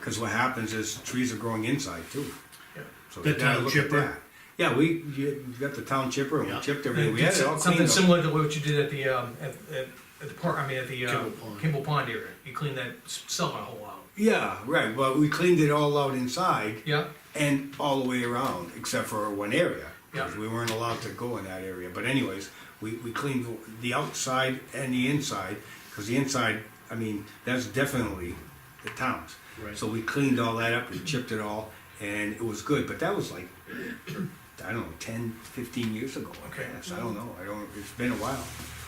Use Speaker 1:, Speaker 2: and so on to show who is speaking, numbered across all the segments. Speaker 1: Cause what happens is trees are growing inside too.
Speaker 2: Yeah.
Speaker 1: So
Speaker 3: The
Speaker 1: you gotta
Speaker 3: town
Speaker 1: look at
Speaker 3: chipper.
Speaker 1: that. Yeah, we, you you got the town chipper and we
Speaker 3: Yeah. Uh,
Speaker 1: chipped
Speaker 2: And
Speaker 1: everything, we had
Speaker 2: did
Speaker 1: it all
Speaker 2: Something
Speaker 1: cleaned up.
Speaker 2: similar to what you did at the, um, at, at, at the park, I mean, at the, uh,
Speaker 3: Kimball Pond.
Speaker 2: Kimball Pond area, you cleaned that s- cellar hole out,
Speaker 1: Yeah, right, but we cleaned it all out inside
Speaker 2: yeah?
Speaker 1: and all the way around, except for one area.
Speaker 2: Yeah.
Speaker 1: 'cause We weren't allowed to go in that area, but anyways, we, we cleaned the outside and the inside, cause the inside, I mean, that's definitely the town's.
Speaker 3: Right.
Speaker 1: So we cleaned all that up, we chipped it all, and it was good, but that was like, I don't know, 10, 15 years ago, I
Speaker 2: Okay.
Speaker 1: guess, I don't know, I don't, it's been a while.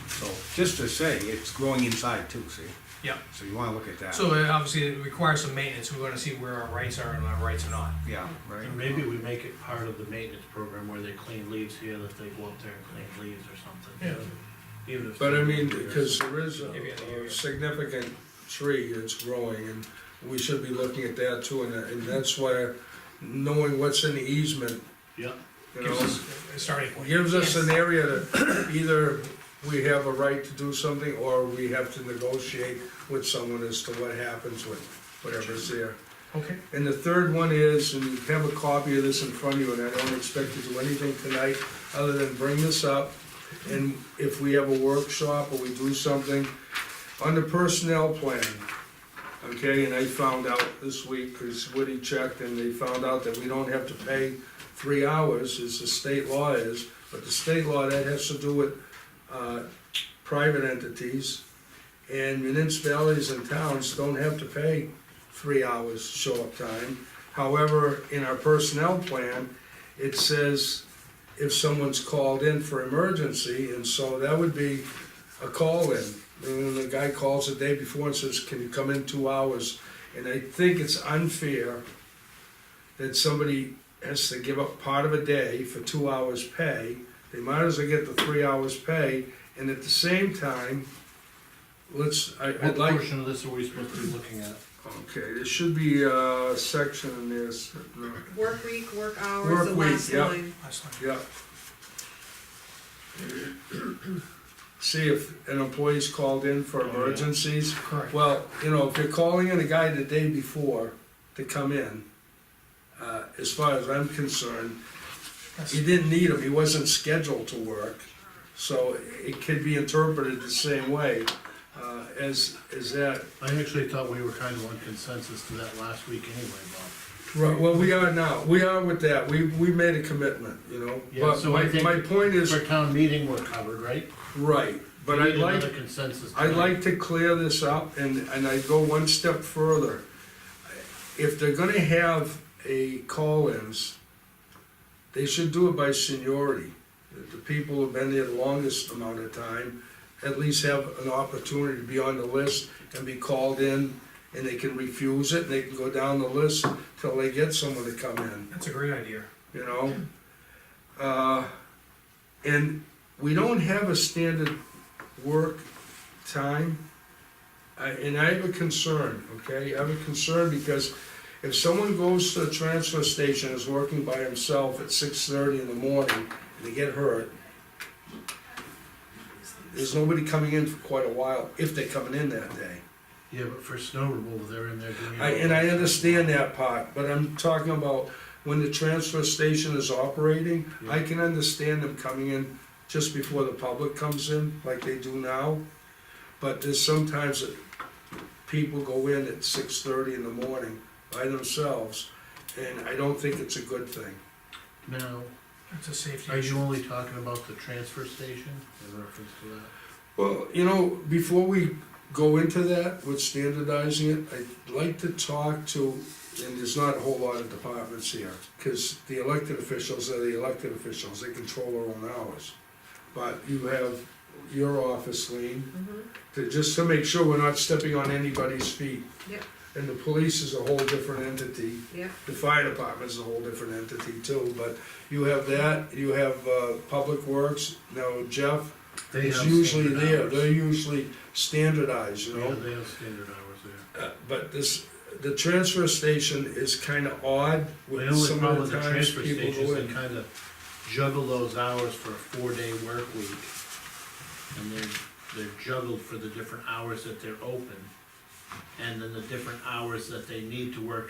Speaker 1: So, just to say, it's growing inside too, see,
Speaker 2: Yeah,
Speaker 1: so you wanna look at that.
Speaker 2: so uh, obviously it requires some maintenance, we wanna see where our rights are and our rights are not.
Speaker 1: Yeah, right.
Speaker 3: And maybe we make it part of the maintenance program where they clean leaves here, that they go up there and clean leaves or something. Yeah. Even if.
Speaker 4: But I mean, because there is a
Speaker 2: Maybe in the area.
Speaker 4: a significant tree that's growing, and we should be looking at that too, and, and that's why knowing what's in the easement,
Speaker 3: Yeah,
Speaker 4: you
Speaker 2: Gives
Speaker 4: know,
Speaker 2: us a starting point.
Speaker 4: gives us an area that either we have a right to do something, or we have to negotiate with someone as to what happens with whatever's there.
Speaker 2: Okay,
Speaker 4: And the third one is, and you have a copy of this in front of you, and I don't expect to do anything tonight other than bring this up. And if we have a workshop or we do something, on the personnel plan, okay, and I found out this week, because Woody checked, and they found out that we don't have to pay three hours, as the state law is, but the state law, that has to do with, uh, private entities, and municipalities and towns don't have to pay three hours show-up time. However, in our personnel plan, it says if someone's called in for emergency, and so that would be a call-in. And then the guy calls the day before and says, can you come in two hours? And I think it's unfair that somebody has to give up part of a day for two hours pay. They might as well get the three hours pay, and at the same time, let's, I,
Speaker 3: what
Speaker 4: I'd like.
Speaker 3: portion of this are we supposed to be looking at?
Speaker 4: Okay, there should be a section in this,
Speaker 5: Work week,
Speaker 4: Work
Speaker 5: work hours, the
Speaker 4: week,
Speaker 5: last
Speaker 4: yep.
Speaker 5: line.
Speaker 2: last time.
Speaker 4: yeah. See if an employee's called in for
Speaker 3: Oh, yeah.
Speaker 4: emergencies.
Speaker 2: correct.
Speaker 4: Well, you know, if you're calling in a guy the day before to come in, uh, as far as I'm concerned,
Speaker 2: That's-
Speaker 4: he didn't need him, he wasn't scheduled to work. So it could be interpreted the same way, uh, as, as that.
Speaker 3: I actually thought we were kind of on consensus to that last week anyway, Bob.
Speaker 4: Right, well, we are now, we are with that, we, we made a commitment, you know,
Speaker 3: Yeah,
Speaker 4: but
Speaker 3: so
Speaker 4: my,
Speaker 3: I think-
Speaker 4: my point is,
Speaker 3: For town meeting, we're covered, right?
Speaker 4: right, but
Speaker 3: We
Speaker 4: I'd
Speaker 3: need
Speaker 4: like,
Speaker 3: Another consensus.
Speaker 4: I'd
Speaker 3: tonight.
Speaker 4: like to clear this up, and, and I'd go one step further. If they're gonna have a call-ins, they should do it by seniority. The- The people who've been there the longest amount of time, at least have an opportunity to be on the list and be called in, and they can refuse it, and they can go down the list till they get someone to come in
Speaker 2: That's a great idea.
Speaker 4: you know? Uh, and we don't have a standard work time. I, and I have a concern, okay? I have a concern because if someone goes to the transfer station, is working by himself at six thirty in the morning, and they get hurt, there's nobody coming in for quite a while, if they're coming in that day.
Speaker 3: Yeah, but for snow removal, they're in there doing. it.
Speaker 4: I, and I understand that part, but I'm talking about when the transfer station is operating, I can understand them coming in just before the public comes in, like they do now. But there's sometimes that people go in at six thirty in the morning by themselves, and I don't think it's a good thing.
Speaker 3: Now,
Speaker 2: That's a safety
Speaker 3: are
Speaker 2: issue.
Speaker 3: you only talking about the transfer station in reference to that?
Speaker 4: Well, you know, before we go into that with standardizing it, I'd like to talk to, and there's not a whole lot of departments here, because the elected officials are the elected officials, they control their own hours. But you have your office, Lean,
Speaker 5: Mhm.
Speaker 4: to, just to make sure we're not stepping on anybody's feet.
Speaker 5: Yep.
Speaker 4: And the police is a whole different entity.
Speaker 5: Yep.
Speaker 4: The fire department is a whole different entity too, but you have that, you have, uh, Public Works, now Jeff,
Speaker 3: They
Speaker 4: it's
Speaker 3: have
Speaker 4: usually
Speaker 3: standard
Speaker 4: there,
Speaker 3: hours.
Speaker 4: they're usually standardized, you
Speaker 3: Yeah,
Speaker 4: know?
Speaker 3: they have standard hours there.
Speaker 4: Uh, But this, the transfer station is kinda odd
Speaker 3: The
Speaker 4: with
Speaker 3: only
Speaker 4: some
Speaker 3: problem
Speaker 4: of
Speaker 3: with
Speaker 4: the
Speaker 3: the
Speaker 4: times
Speaker 3: transfer
Speaker 4: people
Speaker 3: station
Speaker 4: go
Speaker 3: is they
Speaker 4: in.
Speaker 3: kind of juggle those hours for a four-day work week. And they're, they're juggled for the different hours that they're open. And then the different hours that they need to work